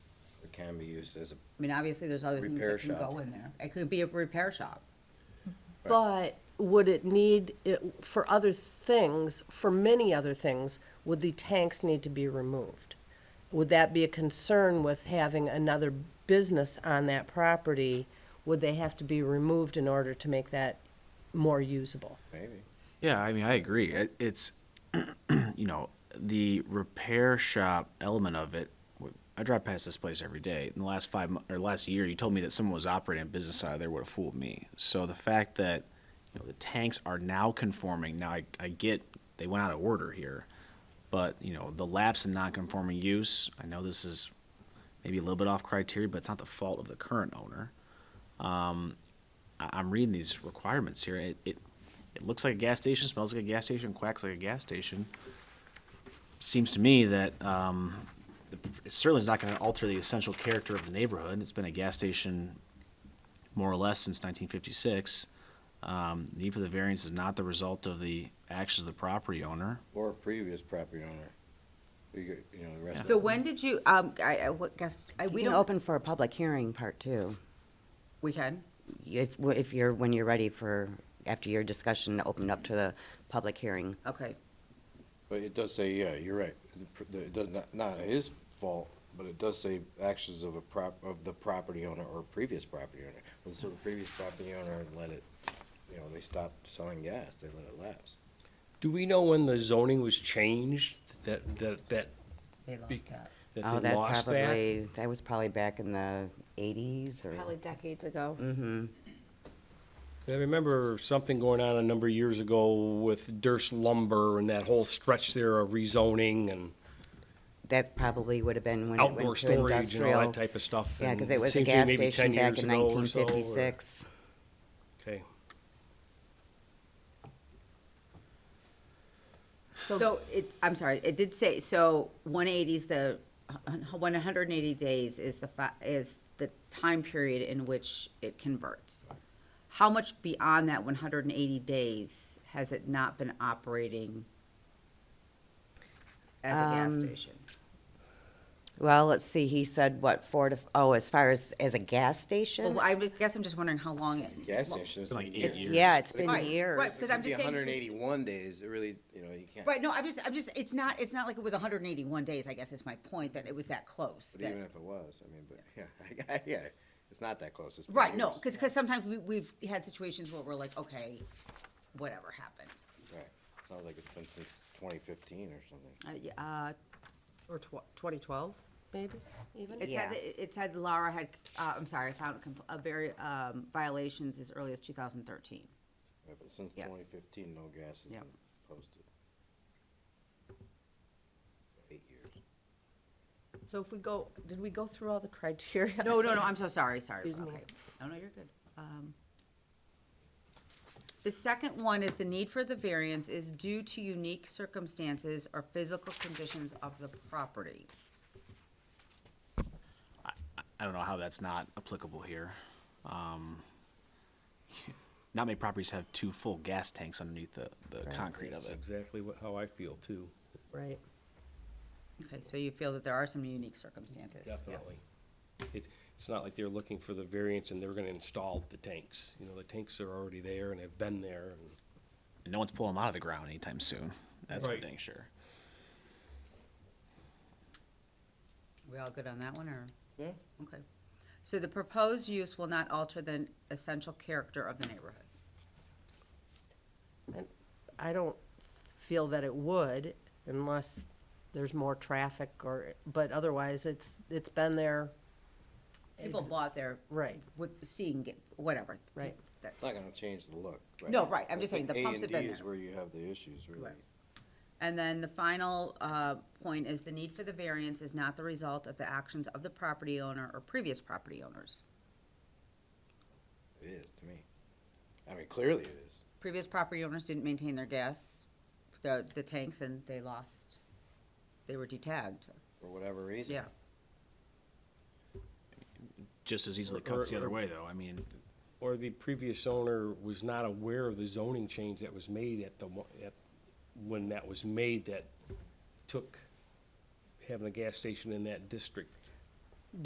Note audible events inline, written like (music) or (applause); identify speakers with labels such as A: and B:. A: it can be used as a,
B: I mean, obviously, there's other things
A: Repair
B: that can
A: shop.
B: go in there. It could be a repair shop.
C: But would it need, it- for other things, for many other things, would the tanks need to be removed? Would that be a concern with having another business on that property? Would they have to be removed in order to make that more usable?
A: maybe.
D: Yeah, I mean, I agree. It, it's, (clears throat) you know, the repair shop element of it. w- I drive past this place every day. In the last five mo- or last year, you told me that someone was operating a business out of there would have fooled me. So the fact that you know the tanks are now conforming. Now I, I get they went out of order here, but you know the lapse in non-conforming use. I know this is maybe a little bit off criteria, but it's not the fault of the current owner. I- I'm reading these requirements here. It, it, it looks like a gas station, smells like a gas station, quacks like a gas station. Seems to me that, um, it certainly is not gonna alter the essential character of the neighborhood. It's been a gas station more or less since nineteen fifty-six. Um, need for the variance is not the result of the actions of the property owner.
A: Or a previous property owner. You get, you know, the rest of
B: So
A: it.
B: when did you, um, I, I what guess, I, we
E: We can
B: don't,
E: open for a public hearing part two,
B: we can?
E: if, if you're, when you're ready for, after your discussion, to open up to the public hearing.
B: Okay.
A: But it does say, yeah, you're right. The pr- the- It does not, not his fault, but it does say actions of a prop, of the property owner or previous property owner. And so the previous property owner let it, you know, they stopped selling gas, they let it lapse.
F: Do we know when the zoning was changed, that, that, that,
B: They lost
F: Be-
B: that.
E: Oh,
F: that they
E: that
F: lost that?
E: probably, that was probably back in the eighties or, Mm-hmm.
G: Probably decades ago.
F: I remember something going on a number of years ago with Durst Lumber and that whole stretch there of rezoning and
E: that probably would have been when it
F: outdoor
E: went to
F: storage and all
E: industrial.
F: that type of stuff.
E: Yeah, because
F: and
E: it was a
F: seems to me
E: gas
F: maybe 10
E: station back
F: years
E: in
F: ago or so, or-
E: nineteen fifty-six.
F: Okay.
B: So it, I'm sorry, it did say, so one eighty's the, one hundred and eighty days is the fi- is the time period in which it converts. How much beyond that one hundred and eighty days has it not been operating as a gas station?
E: Well, let's see, he said what, four to, oh, as far as, as a gas
B: Well,
E: station?
B: I would- guess I'm just wondering how long it.
A: Gas
B: well,
A: stations.
D: been like eight
E: It's,
D: years.
E: yeah, it's been
B: Right,
E: years.
B: Right, because I'm just saying.
A: hundred and
B: because-
A: eighty-one days, it really, you know, you can't.
B: Right, no, I'm just, I'm just, it's not, it's not like it was hundred and eighty-one days, I guess is my point, that it was that close.
A: But
B: that-
A: even if it was, I mean, but, (laughs) yeah, yeah, it's not that close. It's been
B: Right, no,
A: years.
B: because, because sometimes we, we've had situations where we're like, okay, whatever happened.
A: Right. Sounds like it's been since twenty fifteen or something.
B: Uh, yeah, Uh, or tw- twenty twelve?
C: Maybe, even?
B: It said,
E: Yeah.
B: that- it said Laura had, uh, I'm sorry, I found compl- a very, um, violations as early as two thousand thirteen.
A: Yeah, but since
B: Yes.
A: twenty fifteen, no gas has
B: Yep.
A: been posted. Eight years.
C: So if we go, did we go through all the criteria?
B: No, no, no, I'm so sorry, sorry.
C: Excuse me.
B: Okay. No, no, you're good. Um, The second one is the need for the variance is due to unique circumstances or physical conditions of the property.
D: I don't know how that's not applicable here. Um, not many properties have two full gas tanks underneath the, the concrete of
F: That's
D: it.
F: exactly what, how I feel too.
C: (laughs) Right.
B: Okay, so you feel that there are some unique circumstances?
F: Definitely.
B: Yes.
F: It, it's not like they're looking for the variance and they're gonna install the tanks. You know, the tanks are already there and have been there and.
D: no one's pulling them out of the ground anytime soon. That's
F: Right.
D: for dang sure.
B: We all good on that one, or?
A: Yeah.
B: Okay. So the proposed use will not alter the essential character of the neighborhood.
C: I don't feel that it would unless there's more traffic or, but otherwise, it's, it's been there.
B: People bought their.
C: Right.
B: With seeing, it, whatever.
C: Right.
B: That's-
A: It's not gonna change the look, right?
B: No, right, I'm
A: I
B: just saying
A: think
B: the
A: A
B: pumps
A: and
B: have
A: D
B: been
A: is
B: there.
A: where you have the issues, really.
B: And then the final uh, point is the need for the variance is not the result of the actions of the property owner or previous property owners.
A: It is to me. I mean, clearly it is.
B: Previous property owners didn't maintain their gas, the, the tanks, and they lost, they were detagged.
A: For whatever reason.
B: Yeah,
D: Just as easily
F: Or-
D: cuts the
F: or-
D: other way, though. I mean,
F: or the previous owner was not aware of the zoning change that was made at the, mo- at, when that was made that took having a gas station in that district